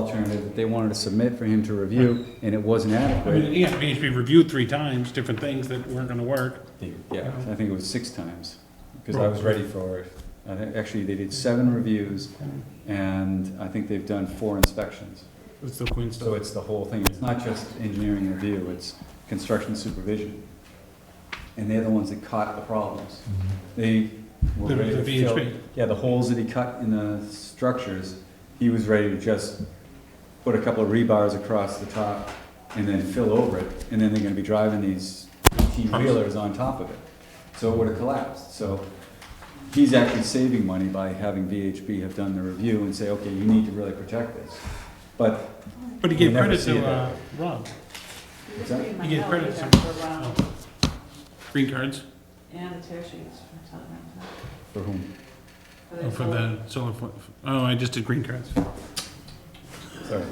alternative that they wanted to submit for him to review, and it wasn't I adequate. mean, yeah, it needs to be reviewed three times, different things that weren't gonna work. Yeah, I think it was six times, because I was ready for it. I think, actually, they did seven reviews, and I think they've done four inspections. It's the Queen So stuff. it's the whole thing, it's not just engineering review, it's construction supervision. And they're the ones that caught the problems. They were The- E ready the to fill. VHP. Yeah, the holes that he cut in the structures, he was ready to just put a couple of rebars across the top and then fill over it, and then they're gonna be driving these T-wheelers on top of it. So it would've collapsed, so he's actually saving money by having VHB have done the review and say, okay, you need to really protect this. But But he gave You never credit see to, that. uh, Rob, What's that? You You get credit For Ron Oh. green cards, and the tear sheets for something. For whom? oh, for the solar, fo- oh, I just did green cards. Sorry.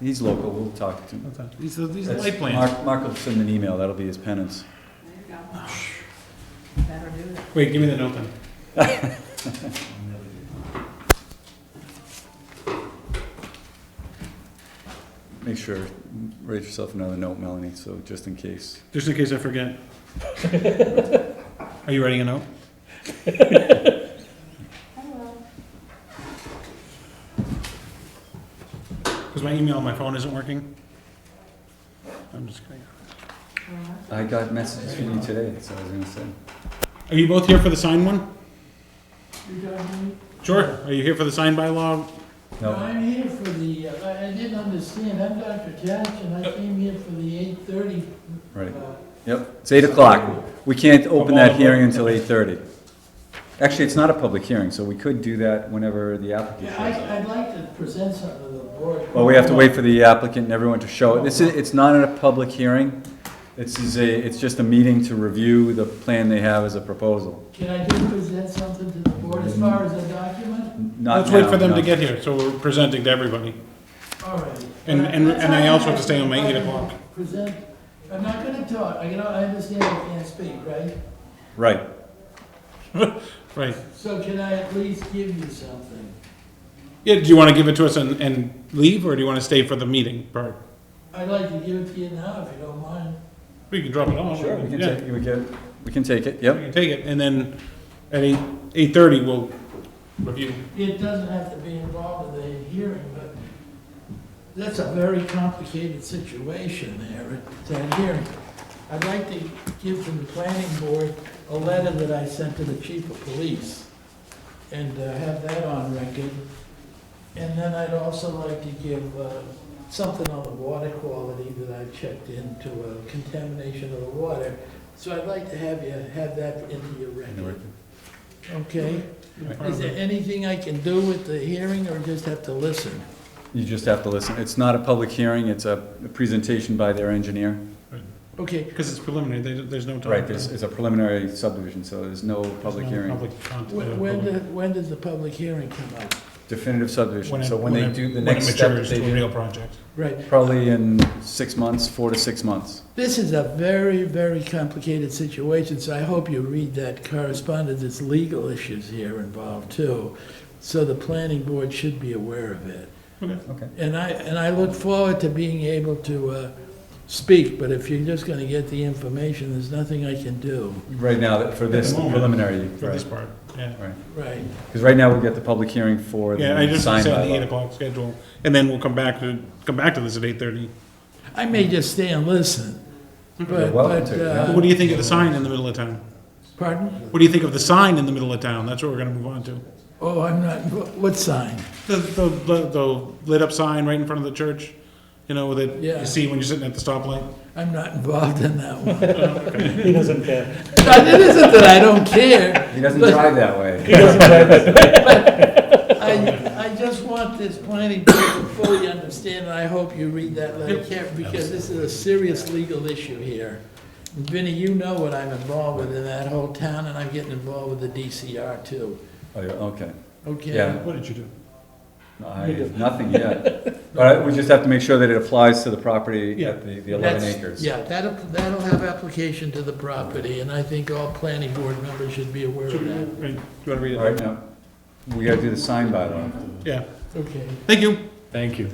He's local, we'll talk to him. What's that? These are, these are That's- light plans. Mark, Mark will send an email, that'll be his penance. There you go. Better do that. Wait, give me the note then. Make sure, write yourself another note, Melanie, so just in case. Just in case I forget. Are you writing a note? Hello. Because my email on my phone isn't working. I'm just kidding. I got messages from you today, that's what I was gonna say. Are you both here for the sign one? Sure. Are you here for the sign bylaw? No, No, I'm here for the, uh, I I didn't understand, I'm Dr. Cash, and I came here for the eight thirty. Uh, right, yep, it's eight o'clock. We can't open that hearing until eight thirty. Actually, it's not a public hearing, so we could do that whenever the applicant Yeah, shows up. I, I'd like to present something to the board. Well, we have to wait for the applicant and everyone to show it. This is, it's not a public hearing. This is a, it's just a meeting to review the plan they have as a proposal. Can I just present something to the board as far as a document? Not Let's wait now, for them to not- get here, so we're presenting to everybody. All right. And- and- and I also have to stay on my eight I'm o'clock. Present, I'm not gonna talk, I, you know, I understand I can't speak, right? Right. Right. So can I at least give you something? Yeah, do you want to give it to us and, and leave, or do you want to stay for the meeting part? I'd like to give it to you now, if you don't mind. We can drop it off. Sure, we can Yeah, take, we can, we can take it, we yep. can take it, and then at eight, eight-thirty, we'll review. It doesn't have to be involved in the hearing, but that's a very complicated situation there at that hearing. I'd like to give to the planning board a letter that I sent to the chief of police and uh, have that on record. And then I'd also like to give uh, something on the water quality that I checked into uh, contamination of the water. So I'd like to have you have that into your record, okay? Is there anything I can do with the hearing or just have to listen? You just have to listen. It's not a public hearing, it's a presentation by their engineer. Okay, Because it's preliminary, there, there's no time. Right, this is a preliminary subdivision, so there's no public no hearing. public con- uh, when, when, public- do- when does the public hearing come up? Definitive subdivision, it- so when they it- do the when next step, it matures they to a do, real project. Right, probably in six months, four to six months. this is a very, very complicated situation, so I hope you read that correspondence. It's legal issues here involved too, so the planning board should be aware of it. Okay. Okay. And I, and I look forward to being able to, uh, speak, but if you're just gonna get the information, there's nothing I can do, Right now, for this the moment, preliminary, For this right, part, yeah. right. right? Because right now, we get the public hearing for Yeah, I the just sign said the eight bylaw. o'clock schedule, and then we'll come back to, come back to this at eight-thirty. I may just stay and listen, You're but, welcome but, to, yeah. uh... What do you think of the sign in the middle of town? Pardon? What do you think of the sign in the middle of town? That's what we're gonna move on to. Oh, I'm not, what- what sign? The, the, the- the lit up sign right in front of the church, you know, that Yeah. you see when you're sitting at the stoplight. I'm not involved in that one. He doesn't care. It isn't that I don't care, He doesn't But- drive that way. I, I just want this planning board to fully understand, and I hope you read that letter carefully, because this is a serious legal issue here. Vinnie, you know what I'm involved with in that whole town, and I'm getting involved with the DCR too, Oh, yeah, Okay, okay? Yeah. What did you do? I, nothing yet. But we just have to make sure that it applies to the property Yeah. at the the 11 That's- acres. Yeah, that'll, that'll have application to the property, and I think all planning board members should be aware Should of we- that. right, Do you wanna read All it? right, now, we gotta do the sign bylaw. Yeah. Okay. Thank you. Thank you.